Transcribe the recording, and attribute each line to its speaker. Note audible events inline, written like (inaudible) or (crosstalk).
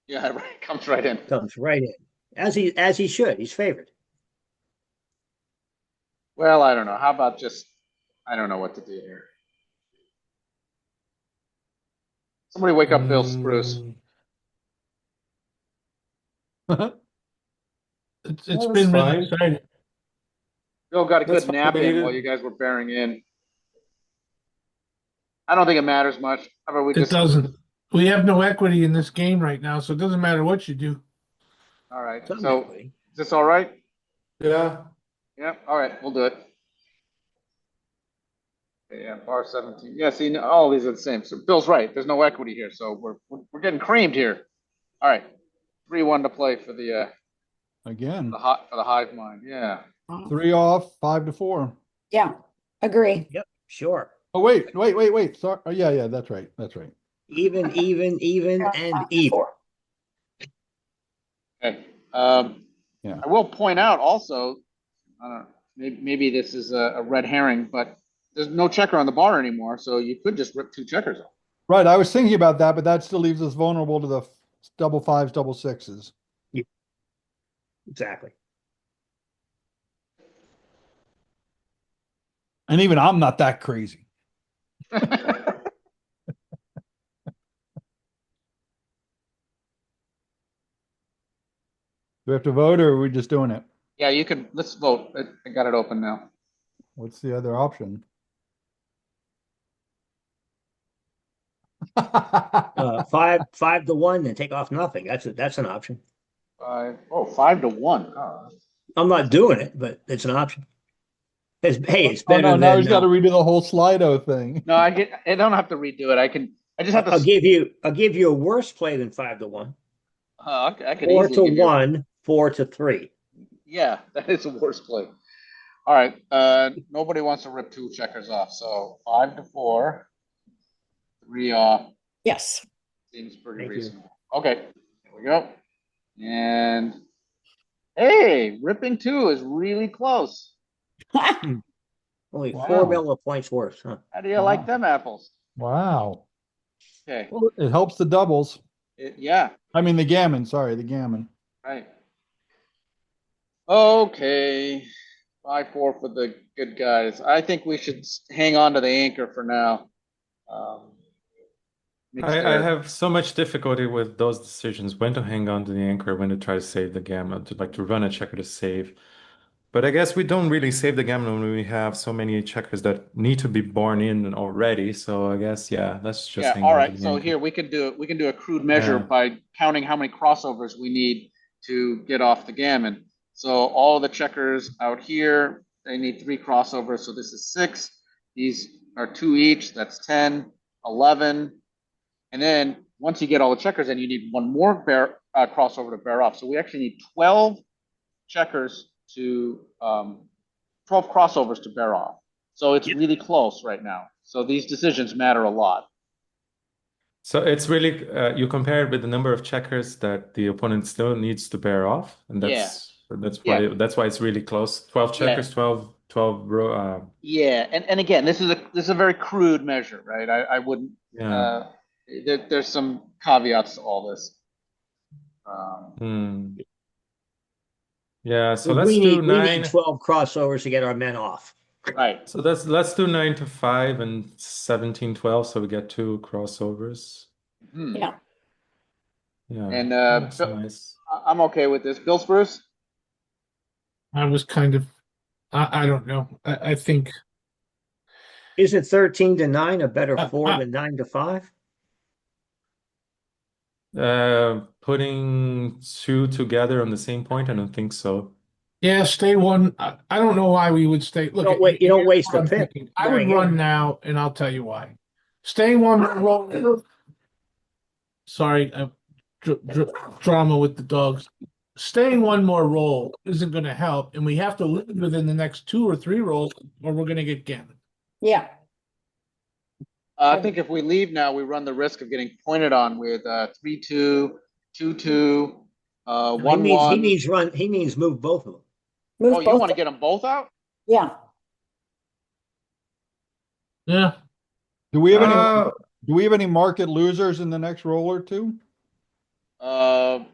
Speaker 1: Yeah, (laughs) right, comes right in.
Speaker 2: comes right in, as he, as he should, he's favored.
Speaker 1: Well, I don't know. How about just, I don't know what to do here. Somebody wake up Bill
Speaker 3: Mm.
Speaker 1: Spruce.
Speaker 4: Uh-huh. It's, it's
Speaker 3: that's
Speaker 4: been
Speaker 3: fine.
Speaker 4: really exciting.
Speaker 1: Bill got a
Speaker 3: That's
Speaker 1: good
Speaker 3: fine,
Speaker 1: nap
Speaker 3: but he
Speaker 1: in
Speaker 3: didn't-
Speaker 1: while you guys were bearing in. I don't think it matters much. How about we
Speaker 4: It
Speaker 1: just, all
Speaker 4: doesn't, we have no equity in this game right now, so it doesn't matter what you do.
Speaker 1: right,
Speaker 2: Some
Speaker 1: so
Speaker 2: equity.
Speaker 1: is this all right?
Speaker 3: Yeah,
Speaker 1: Yeah, all right, we'll do it. Yeah, bar seventeen. Yeah, see, no- all these are the same. So Bill's right. There's no equity here, so we're, we're- we're getting creamed here. All right, three one to play for the, uh,
Speaker 5: Again,
Speaker 1: the hot, for the hive mind. Yeah.
Speaker 5: three off, five to four.
Speaker 6: Yeah, agree.
Speaker 2: Sure,
Speaker 5: Oh, wait, wait, wait, wait. Sorry. Oh, yeah, yeah, that's right. That's right.
Speaker 2: even, even,
Speaker 5: (laughs)
Speaker 2: even, and even.
Speaker 6: Four.
Speaker 1: Okay, um,
Speaker 5: Yeah.
Speaker 1: I will point out also, I don't, know, maybe, maybe this is a, a red herring, but there's no checker on the bar anymore, so you could just rip two checkers off.
Speaker 5: Right. I was thinking about that, but that still leaves us vulnerable to the f- double fives, double sixes.
Speaker 2: Exactly.
Speaker 5: And even I'm not that crazy. Do we have to vote or are we just doing it?
Speaker 1: (laughs) Yeah, you can, let's vote. I- I got it open now.
Speaker 5: What's the other option? (laughs) Oh, (laughs)
Speaker 2: Uh, five, five to one, then take off nothing. That's, a- that's an option.
Speaker 1: Five, oh, five to one. Oh,
Speaker 2: I'm not doing it, but it's an option. It's, hey, it's
Speaker 5: Oh,
Speaker 2: better
Speaker 5: no,
Speaker 2: than,
Speaker 5: now he's got to
Speaker 2: uh,
Speaker 5: redo the whole Slido thing.
Speaker 1: No, I get, I don't have to redo it. I can, I just have
Speaker 2: I'll
Speaker 1: to,
Speaker 2: give you, I'll give you a worse play than five to one,
Speaker 1: uh, I could
Speaker 2: four
Speaker 1: easily.
Speaker 2: to
Speaker 1: give you-
Speaker 2: one, four to three.
Speaker 1: Yeah, (laughs) that is a worse play. All right, uh, nobody wants to rip two checkers off, so five to four. Three off,
Speaker 6: Yes.
Speaker 1: Seems pretty
Speaker 2: Thank you.
Speaker 1: reasonable. Okay, here we go. And hey, ripping two is really close.
Speaker 2: Only
Speaker 5: Wow.
Speaker 2: four million points worse, huh?
Speaker 1: How do you like
Speaker 2: Uh-huh.
Speaker 5: Wow.
Speaker 1: them apples?
Speaker 5: Wow.
Speaker 1: Okay,
Speaker 5: Well, it helps the doubles.
Speaker 1: it- yeah,
Speaker 5: I mean, the gammon, sorry, the gammon.
Speaker 1: right. Okay, five, four for the good guys. I think we should s- hang on to the anchor for now. Um, mixed
Speaker 3: I, I
Speaker 1: air.
Speaker 3: have so much difficulty with those decisions when to hang on to the anchor, when to try to save the gammon, to like to run a checker to save. But I guess we don't really save the gammon when we have so many checkers that need to be born in already. So I guess, yeah, let's just
Speaker 1: Yeah,
Speaker 3: hang
Speaker 1: all
Speaker 3: on to
Speaker 1: right,
Speaker 3: the
Speaker 1: so
Speaker 3: anchor.
Speaker 1: here, we can do, it. we can do a crude measure
Speaker 3: Yeah.
Speaker 1: by counting how many crossovers we need to get off the gammon. So all the checkers out here, they need three crossovers, so this is six. These are two each, that's ten, eleven. And then, once you get all the checkers, then you need one more bear, uh, crossover to bear off. So we actually need twelve checkers to, um, twelve crossovers to bear off. So it's really close right now. So these decisions matter a lot.
Speaker 3: So it's really uh, you compare it with the number of checkers that the opponent still needs to bear off, and
Speaker 1: Yeah.
Speaker 3: that's that's why that's why it's really close. 12
Speaker 1: Yeah.
Speaker 3: checkers, 12 12 row uh,
Speaker 1: Yeah, and, and again, this is a this is a very crude measure, right? I, I wouldn't.
Speaker 3: yeah.
Speaker 1: Uh, there, there's some caveats to all this. Um,
Speaker 3: Hmm. Yeah, so
Speaker 2: We
Speaker 3: let's
Speaker 2: need- we
Speaker 3: do
Speaker 2: need
Speaker 3: nine.
Speaker 2: Twelve crossovers to get our men off.
Speaker 1: right.
Speaker 3: So that's let's do 9 to 5 and 17 12 so we get two crossovers.
Speaker 1: Hmm.
Speaker 6: Yeah.
Speaker 3: Yeah.
Speaker 1: And uh,
Speaker 3: that's
Speaker 1: Bill,
Speaker 3: nice.
Speaker 1: I- I'm okay with this. Bill Spruce.
Speaker 4: I was kind of, I, I don't know. I, I think,
Speaker 2: Isn't thirteen to nine a
Speaker 3: (laughs)
Speaker 2: better
Speaker 4: Uh,
Speaker 2: four
Speaker 4: uh.
Speaker 2: than nine to five?
Speaker 3: Uh, putting two together on the same point, I don't think so.
Speaker 4: yeah, stay one. I, I don't know why we would stay. Look,
Speaker 2: Don't wait- you don't waste a
Speaker 4: I'm
Speaker 2: pick
Speaker 4: thinking. I would
Speaker 2: going in.
Speaker 4: run now, and I'll tell you why. Stay one. row- Sorry, uh, dr- dr- drama with the dogs. Staying one more roll isn't going to help, and we have to live within the next two or three rolls, or we're going to get gammon.
Speaker 6: Yeah.
Speaker 1: Uh, I think if we leave now, we run the risk of getting pointed on with uh, three two, two two, uh,
Speaker 2: He
Speaker 1: one
Speaker 2: needs- He
Speaker 1: one.
Speaker 2: needs run, he needs move both of them.
Speaker 1: Oh,
Speaker 6: Move
Speaker 1: you want
Speaker 6: both.
Speaker 1: to get them both out?
Speaker 6: Yeah.
Speaker 4: Yeah.
Speaker 5: Do we have any,
Speaker 3: Uh,
Speaker 5: do we have any market losers in the next roll or two?
Speaker 1: Uh,